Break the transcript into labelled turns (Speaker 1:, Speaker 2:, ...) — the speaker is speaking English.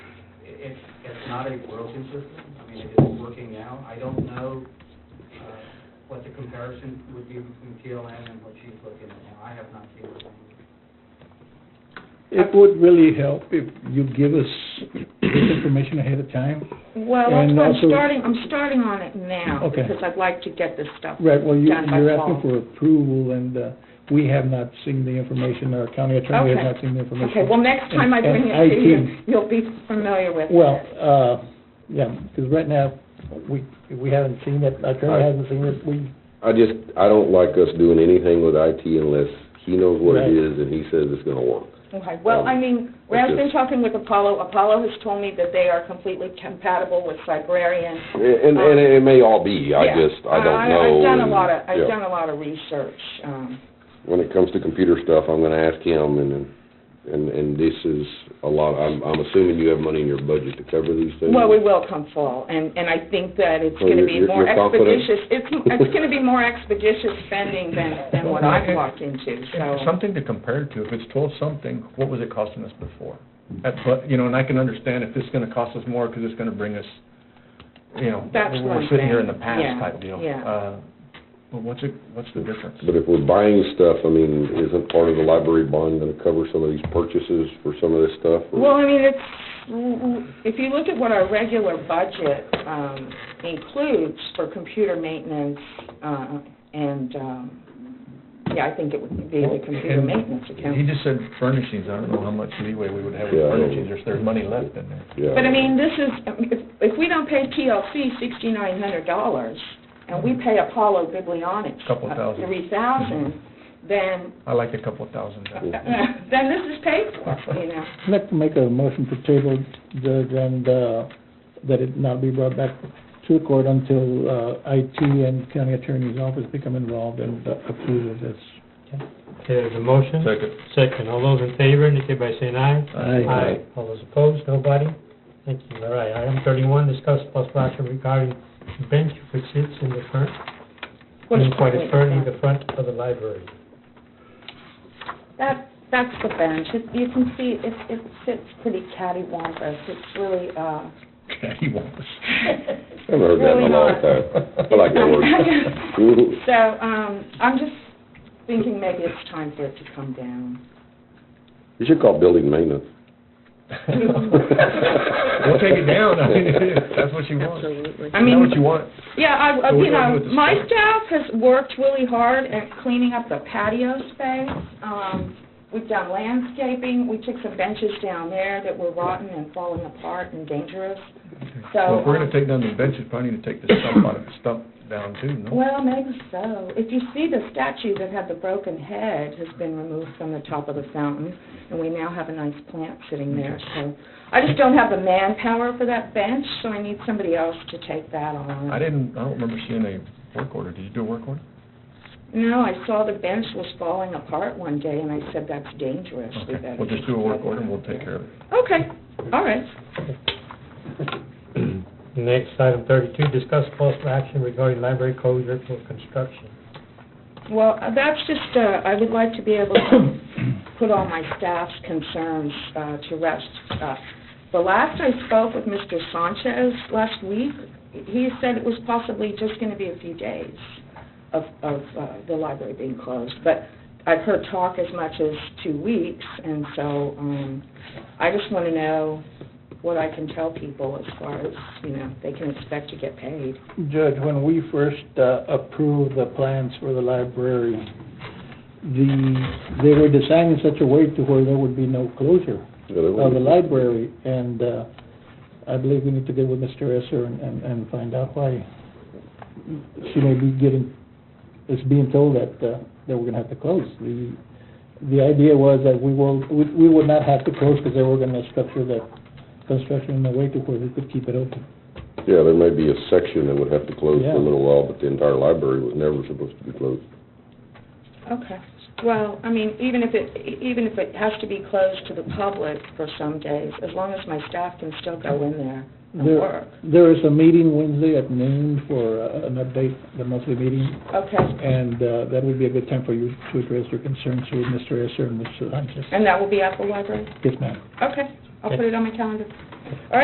Speaker 1: it's, it's not a broken system. I mean, it is working now. I don't know uh, what the comparison would be between PLN and what she's looking at now. I have not seen it.
Speaker 2: It would really help if you give us this information ahead of time.
Speaker 3: Well, that's
Speaker 2: And
Speaker 3: why I'm
Speaker 2: also-
Speaker 3: starting, I'm starting on it now,
Speaker 2: Okay.
Speaker 3: because I'd like to get this stuff
Speaker 2: Right, well, you,
Speaker 3: done by
Speaker 2: you're asking
Speaker 3: fall.
Speaker 2: for approval, and, uh, we have not seen the information, our county attorney has
Speaker 3: Okay.
Speaker 2: not seen the information.
Speaker 3: Okay, well, next time I
Speaker 2: And-
Speaker 3: bring
Speaker 2: and
Speaker 3: it to you,
Speaker 2: IT.
Speaker 3: you'll be familiar with it.
Speaker 2: Well, uh, yeah, because right now, we, we haven't seen it, our attorney
Speaker 4: I-
Speaker 2: hasn't seen it, we,
Speaker 4: I just, I don't like us doing anything with IT unless he knows what it
Speaker 2: Right.
Speaker 4: is and he says it's gonna work.
Speaker 3: Okay, well, I mean, when I've been
Speaker 4: Okay.
Speaker 3: talking with Apollo, Apollo has told me that they are completely compatible with Librarian.
Speaker 4: And, and it may all be, I
Speaker 3: Yeah.
Speaker 4: just, I don't
Speaker 3: I-
Speaker 4: know.
Speaker 3: I've done a
Speaker 4: and-
Speaker 3: lot of, I've
Speaker 4: yeah.
Speaker 3: done a lot of research, um,
Speaker 4: When it comes to computer stuff, I'm gonna ask him and, and, and this is a lot, I'm, I'm assuming you have money in your budget to cover these things?
Speaker 3: Well, we will come fall, and, and I think that it's
Speaker 4: So
Speaker 3: gonna
Speaker 4: you're-
Speaker 3: be
Speaker 4: you're-
Speaker 3: more
Speaker 4: you're confident?
Speaker 3: expeditious, it's, it's gonna be more expeditious spending than, than what I walked into, so.
Speaker 5: Something to compare it to, if it's twelve something, what was it costing us before? At, but, you know, and I can understand if this is gonna cost us more, because it's gonna bring us, you know,
Speaker 3: That's
Speaker 5: we're
Speaker 3: one
Speaker 5: sitting here in the
Speaker 3: thing. Yeah,
Speaker 5: past type deal.
Speaker 3: yeah.
Speaker 5: Uh, But what's it, what's the difference?
Speaker 4: But if we're buying stuff, I mean, isn't part of the library bond gonna cover some of these purchases for some of this stuff? or-
Speaker 3: Well, I mean, it's, if you look at what our regular budget, um, includes for computer maintenance, uh, and, um, yeah, I think it would be the computer
Speaker 5: And
Speaker 3: maintenance
Speaker 5: He
Speaker 3: account.
Speaker 5: just said furnishings, I don't know how much leeway we would have with
Speaker 4: Yeah, I don't-
Speaker 5: furnishings, there's, there's money left in there.
Speaker 4: Yeah.
Speaker 3: But I mean, this is, if, if we don't pay TLC sixty-nine hundred dollars, and we pay Apollo Biblionics uh,
Speaker 5: Couple thousand.
Speaker 3: Three thousand, then,
Speaker 5: I like a couple thousand dollars.
Speaker 3: then this is paid for, you know.
Speaker 2: I'd like to make a motion to table, Judge, and, uh, that it not be brought back to the court until, uh, IT and county attorney's office become involved and uh, approve of this.
Speaker 6: Okay, there's a motion.
Speaker 5: Second.
Speaker 6: Second, all those in favor indicate by saying aye.
Speaker 2: Aye.
Speaker 6: All those opposed, nobody? Thank you, all right. Item thirty-one, discuss possible action regarding bench which sits in the front,
Speaker 3: What's
Speaker 6: in quite
Speaker 3: currently-
Speaker 6: currently the front of the library.
Speaker 3: That, that's the bench. It- You can see, it, it sits pretty cattywampus. It's really, uh,
Speaker 5: He wants.
Speaker 4: I haven't heard that in a long time. I like that word.
Speaker 3: so, um, I'm just thinking maybe it's time for it to come down.
Speaker 4: You should call building maintenance.
Speaker 5: We'll take it down, I mean, if that's what you want. Is
Speaker 3: I
Speaker 5: that what you
Speaker 3: mean,
Speaker 5: want?
Speaker 3: yeah, I, I-
Speaker 5: So what
Speaker 3: you
Speaker 5: do I do
Speaker 3: know,
Speaker 5: with the
Speaker 3: my
Speaker 5: space?
Speaker 3: staff has worked really hard at cleaning up the patio space. Um, we've done landscaping. We took some benches down there that were rotten and falling apart and dangerous. So,
Speaker 5: Well, if we're
Speaker 3: um,
Speaker 5: gonna take down the benches, probably need to take the stump out of, stump down too, no?
Speaker 3: Well, maybe so. If you see the statue that had the broken head has been removed from the top of the fountain, and we now have a nice plant sitting there, so. I just don't have the manpower for that bench, so I need somebody else to take that
Speaker 5: I
Speaker 3: on.
Speaker 5: didn't, I don't remember seeing a work order. Did you do a work order?
Speaker 3: No, I saw the bench was falling apart one day, and I said, that's dangerous. We
Speaker 5: Okay,
Speaker 3: better
Speaker 5: we'll just do a work order and we'll take care of it.
Speaker 3: Okay, all right.
Speaker 6: Next, item thirty-two, discuss possible action regarding library closure for construction.
Speaker 3: Well, that's just, uh, I would like to be able to put all my staff's concerns uh, to rest. Uh, The last I spoke with Mr. Sanchez last week, he said it was possibly just going to be a few days of, of uh, the library being closed. But I've heard talk as much as two weeks, and so um, I just want to know what I can tell people as far as, you know, they can expect to get paid.
Speaker 2: Judge, when we first uh, approved the plans for the library, the, they were designed in such a way to where there would be no closure of Oh, the library, and uh, I believe we need to get with Mr. Esser and- and, and find out why she may be getting, is being told that, uh, that we're gonna have to close. The, the idea was that we will, we we would not have to close because they were gonna structure the construction in a way to where we could keep it open.
Speaker 4: Yeah, there may be a section that would have to close for
Speaker 2: Yeah.
Speaker 4: a little while, but the entire library was never supposed to be closed.
Speaker 3: Okay. Well, I mean, even if it, e- even if it has to be closed to the public for some days, as long as my staff can still go in there and
Speaker 2: There-
Speaker 3: work.
Speaker 2: There is a meeting Wednesday at noon for uh, an update, the monthly meeting,
Speaker 3: Okay.
Speaker 2: and uh, that would be a good time for you to address your concerns with Mr. Esser and Mr. Sanchez.
Speaker 3: And that will be at the library?
Speaker 2: Yes, ma'am.
Speaker 3: Okay. I'll put it on my calendar.